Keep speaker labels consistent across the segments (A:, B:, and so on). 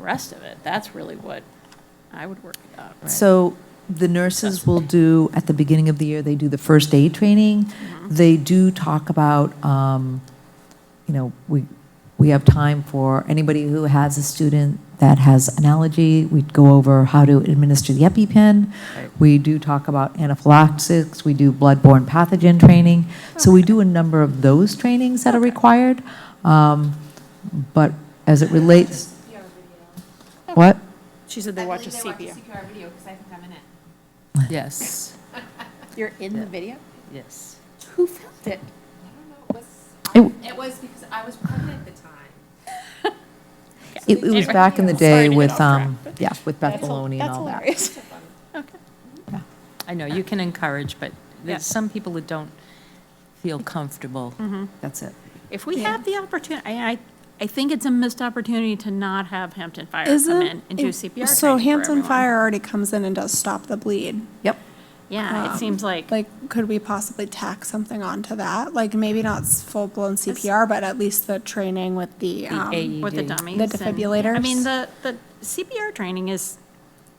A: rest of it. That's really what I would work it out.
B: So the nurses will do, at the beginning of the year, they do the first aid training. They do talk about, um, you know, we, we have time for anybody who has a student that has an allergy. We go over how to administer the EpiPen. We do talk about anaphylaxis. We do bloodborne pathogen training. So we do a number of those trainings that are required. Um, But as it relates,
C: CPR video.
B: what?
A: She said they
C: I
A: watch a
C: believe they
A: CPR.
C: CPR video because I think I'm in it.
D: Yes,
A: You're in the video?
D: yes.
A: Who filmed it?
C: I don't know, it
B: It
C: was,
B: w-
C: it was because I was pregnant at the time.
B: It, it was
A: Anyway,
B: back in the
A: sorry to
B: day
A: get
B: with,
A: off track,
B: um,
A: but
B: yeah, with Beth
A: that's hil-
B: Maloney and all that.
A: That's hilarious.
D: I know, you can encourage, but
A: Yeah. Mm-hmm.
D: there's some people that don't feel comfortable.
B: That's it.
A: If we have the opportunity, I, I, I think it's a missed opportunity to not have Hampton Fire come
E: Isn't
A: in and do
E: it-
A: CPR
E: So
A: training for
E: Hampton
A: everyone.
E: Fire already comes in and does stop the bleed.
B: Yep.
A: Yeah, it
E: Um,
A: seems like,
E: Like, could we possibly tack something onto that? Like, maybe not full blown CPR, but at least the training with the,
D: The AED.
E: um,
A: with the E.
D: ED.
A: dummies.
E: The
A: and- I
E: defibrillators.
A: mean, the, the CPR training is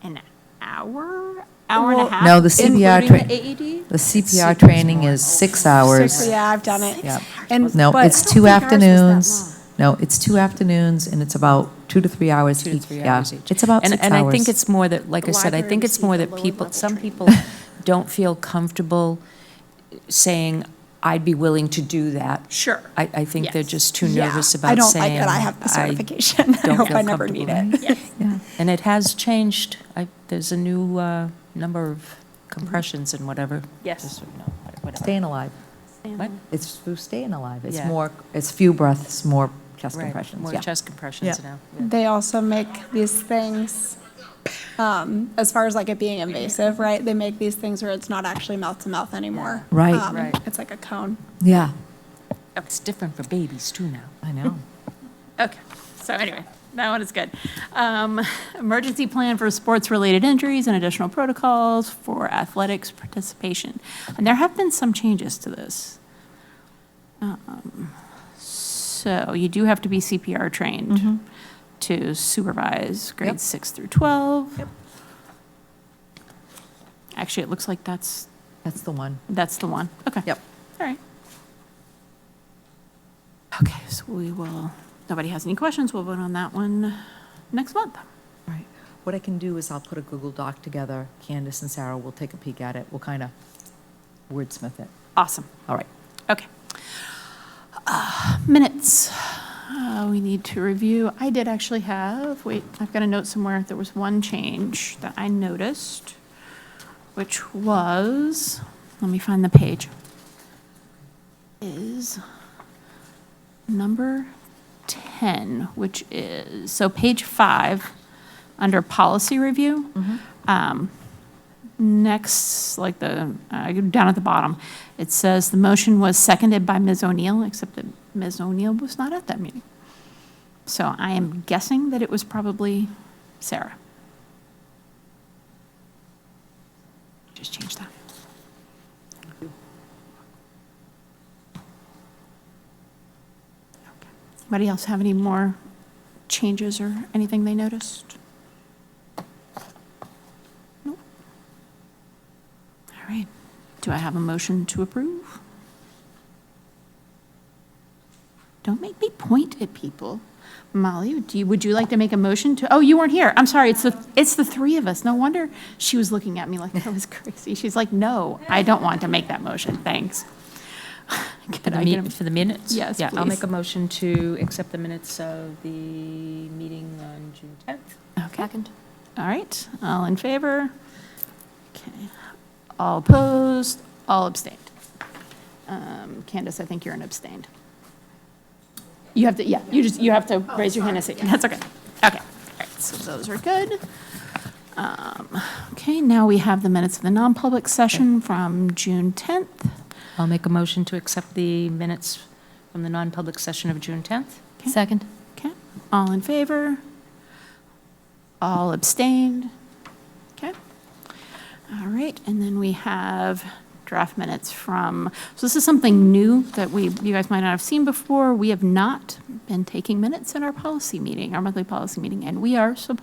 A: an hour, hour and a
E: Well-
A: half?
B: No, the CPR
A: including
B: tra-
A: the E AED?
B: The CPR training is six hours.
E: six- yeah, I've done it.
B: Yep.
E: And-
B: No,
E: but-
B: it's two afternoons. No, it's two afternoons and it's about two to three hours
D: two to
B: each.
D: three
B: Yeah.
D: hours each.
B: It's about
D: And-
B: six
D: And I think
B: hours.
D: it's more that, like I
E: The
D: said, I
E: library
D: think it's more
E: received a
D: that people,
E: lower-level
D: some
E: training.
D: people don't feel comfortable saying, I'd be willing to do that.
A: Sure.
D: I, I think they're
A: Yes.
D: just too
E: Yeah,
D: nervous
E: I
D: about
E: don't like
D: saying.
E: that I have the certification. I
D: don't
E: hope
D: feel
E: I never need
D: comfortable."
E: it.
B: Yeah.
D: And it has changed. I, there's a new uh, number of compressions and whatever.
A: Yes.
D: Just so you know, whatever.
B: Staying alive.
D: What?
B: It's through staying alive. It's
D: Yeah.
B: more, it's few breaths, more chest
D: Right,
B: compressions.
D: More
B: Yeah.
D: chest compressions
B: Yeah.
D: now.
E: They also make these things, um, as far as like it being invasive, right? They make these things where it's not actually mouth to mouth anymore.
B: Right.
E: Um,
D: Right.
E: It's like a cone.
B: Yeah.
D: Oh, It's different for babies too now.
B: I know.
A: Okay, so anyway, that one is good. Um, Emergency plan for sports-related injuries and additional protocols for athletics participation. And there have been some changes to this. Um, So you do have to be CPR trained to supervise
B: Yep.
A: grades six through 12. Actually, it looks like that's,
B: That's the one.
A: that's the one. Okay.
B: Yep.
A: All right. Okay, so we will, nobody has any questions, we'll vote on that one next month.
B: Right. What I can do is I'll put a Google Doc together. Candace and Sarah will take a peek at it. We'll kind of wordsmith it.
A: Awesome,
B: All right.
A: okay. Uh, Minutes, Uh, we need to review. I did actually have, wait, I've got a note somewhere, there was one change that I noticed, which was, let me find the page, is number 10, which is, so page five, under policy review. Um, Next, like the, uh, down at the bottom, it says the motion was seconded by Ms. O'Neill, except that Ms. O'Neill was not at that meeting. So I am guessing that it was probably Sarah. Just change that. Okay. Anybody else have any more changes or anything they noticed? Nope. All right. Do I have a motion to approve? Don't make me point at people. Molly, do you, would you like to make a motion to, oh, you weren't here. I'm sorry, it's the, it's the three of us. No wonder she was looking at me like I was crazy. She's like, no, I don't want to make that motion, thanks.
D: For
A: Could
D: the
A: I get a-
D: mi- For the minutes?
A: Yes,
D: Yeah, I'll
A: please.
D: make a motion to accept the minutes of the meeting on June 10th.
A: Okay. All right, all in favor? Okay. All opposed, all abstained. Um, Candace, I think you're an abstained. You have to, yeah, you just, you have to raise your hand and say, that's okay. Okay, all right, so those are good. Um, Okay, now we have the minutes of the non-public session from June 10th.
D: I'll make a motion to accept the minutes from the non-public session of June 10th.
A: Second. Okay, all in favor? All abstained? Okay. All right, and then we have draft minutes from, so this is something new that we, you guys might not have seen before. We have not been taking minutes in our policy meeting, our monthly policy meeting, and we are supposed